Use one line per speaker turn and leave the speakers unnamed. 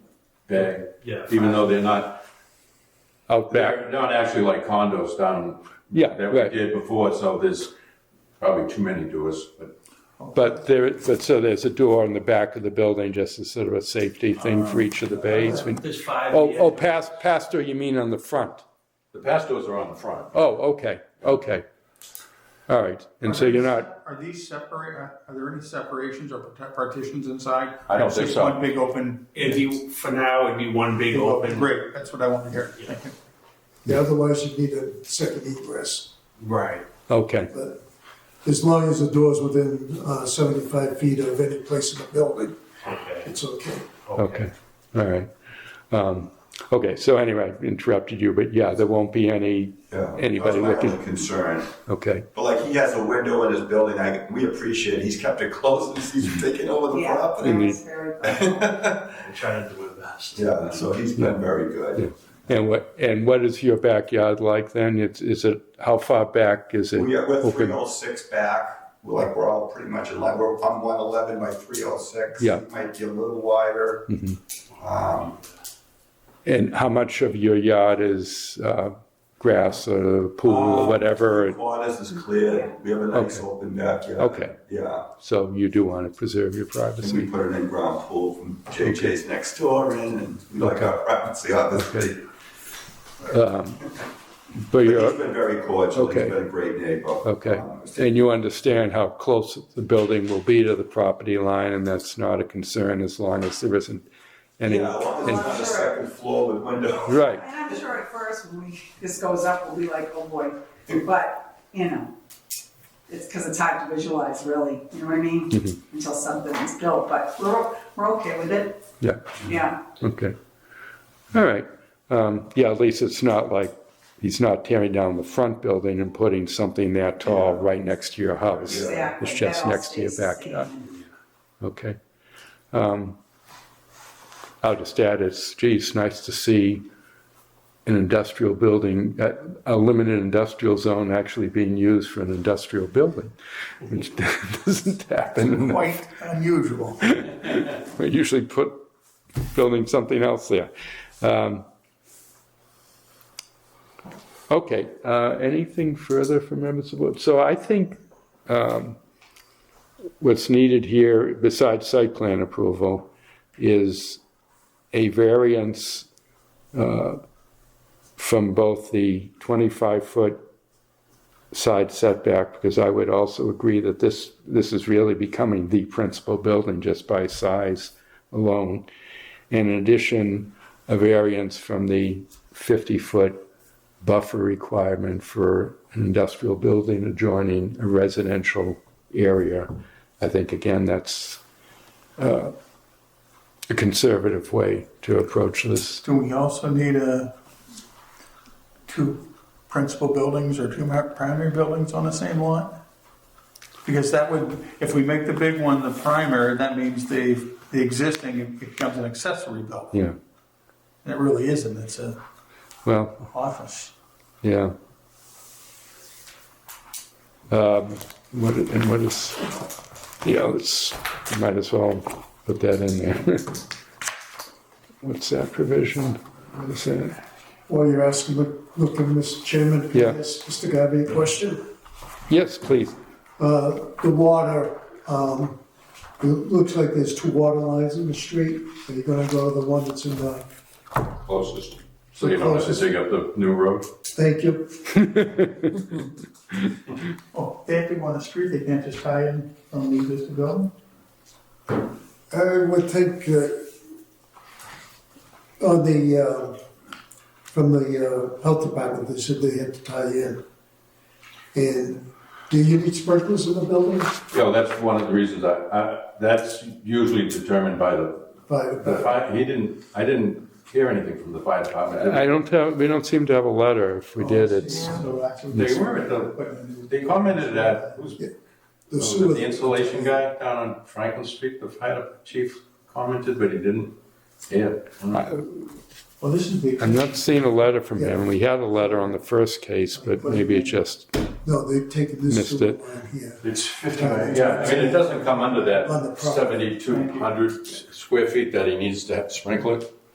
day,
Yeah.
even though they're not,
out back.
they're not actually like condos down
Yeah,
that we
right.
did before, so there's probably too many doors, but
But there, but so there's a door in the back of the building, just as sort of a safety thing for each of the bays.
Uh,
We-
There's five.
Oh,
yeah.
oh, pas- pastor, you mean on the front?
the past doors are on the front.
Oh, okay, okay. All right, and so you're not,
Are these separate, uh, are are there any separations or part- partitions inside?
I don't think
Just
so.
one big open,
It'd be, for now, it'd be one big
big open,
open.
great, that's what I want to hear. Thank you.
Yeah, otherwise you'd need a second egress.
Right.
okay,
But as long as the door's within uh, 75 feet of any place in the building,
Okay.
it's okay.
okay, all right. Um, Okay, so anyway, I interrupted you, but yeah, there won't be any,
Yeah,
anybody
that's my
looking.
only Concern,
Okay,
but like he has a window in his building, I, we appreciate, he's kept it closed since he's taken over the
Yeah.
property.
That's very good.
I'm trying to do my best.
Yeah, so he's been very good.
and what, and what is your backyard like then? It's, is it, how far back is it?
We are, we're three
open?
oh six back, we're like, we're all pretty much in line, we're, I'm one eleven by three oh six.
Yeah.
Might be a little wider. Um,
And how much of your yard is uh, grass or pool or
Uh,
whatever?
quarters is clear, we have a nice
Okay.
open backyard.
Okay.
Yeah,
So you do want to preserve your
and we
privacy.
put an in-ground pool from JJ's next door in, and we like our privacy, obviously.
Um, But
But he's
you're,
been very cordial.
Okay.
He's been a great neighbor.
okay.
Um, it's-
And you understand how close the building will be to the property line, and that's not a concern as long as there isn't any.
yeah, well, it's
and-
on the second floor with windows.
Right,
And I'm sure at first when we, this goes up, we'll be like, oh boy, but, you know, it's because it's hard to visualize really, you know what I mean?
Mm-hmm.
Until something is built, but we're, we're okay with it,
yeah,
yeah.
okay. All right. Um, Yeah, at least it's not like, he's not tearing down the front building and putting something that tall right next to your house.
exactly.
It's just
That all
next to your
stays the
backyard.
same.
Okay. Um, I'll just add, it's, gee, it's nice to see an industrial building, uh, a limited industrial zone actually being used for an industrial building, which doesn't happen.
Quite unusual.
We usually put, building something else there. Um, Okay, uh, anything further from members of the board? So I think um, what's needed here, besides site plan approval, is a variance uh, from both the 25-foot side setback, because I would also agree that this, this is really becoming the principal building just by size alone. And in addition, a variance from the 50-foot buffer requirement for an industrial building adjoining a residential area. I think, again, that's uh, a conservative way to approach this.
Do we also need a, two principal buildings or two mar- primary buildings on the same lot? Because that would, if we make the big one the primary, that means the, the existing becomes an accessory building.
Yeah,
And it really isn't, it's a
well,
office.
Yeah. Um, what, i- and what is, yeah, let's, we might as well put that in there. What's that provision? What is that?
While you're asking, look- looking, Mr. Chairman, can
Yeah.
I ask Mr. Gabi a question?
Yes, please.
Uh, The water, um, it looks like there's two water lines in the street. Are you going to go to the one that's in the,
Closest. So you don't have to
Closest.
dig up the new road?
thank you.
Oh, they have to go on the street, they can't just tie in on the existing building?
I would think uh, on the, uh, from the uh, health department, they said they had to tie in. And do you need sprinklers in the building?
Yeah, well, that's one of the reasons I, I, that's usually determined by the,
Fire-
the fire, he didn't, I didn't hear anything from the fire department. did we?
I don't have, we don't seem to have a letter. If we did, it's,
So actually-
They were at the, they commented at, who's,
The
was
sewer.
it the insulation guy down on Franklin Street, the fire chief commented, but he didn't. Yeah.
Well, this is the.
I'm not seeing a letter from him. We had a letter on the first case, but maybe it just,
No, they've taken this
Missed
sewer
it.
line here.
It's fifty, yeah, I mean, it doesn't come under that
On the property.
seventy-two hundred square feet that he needs to have sprinkled.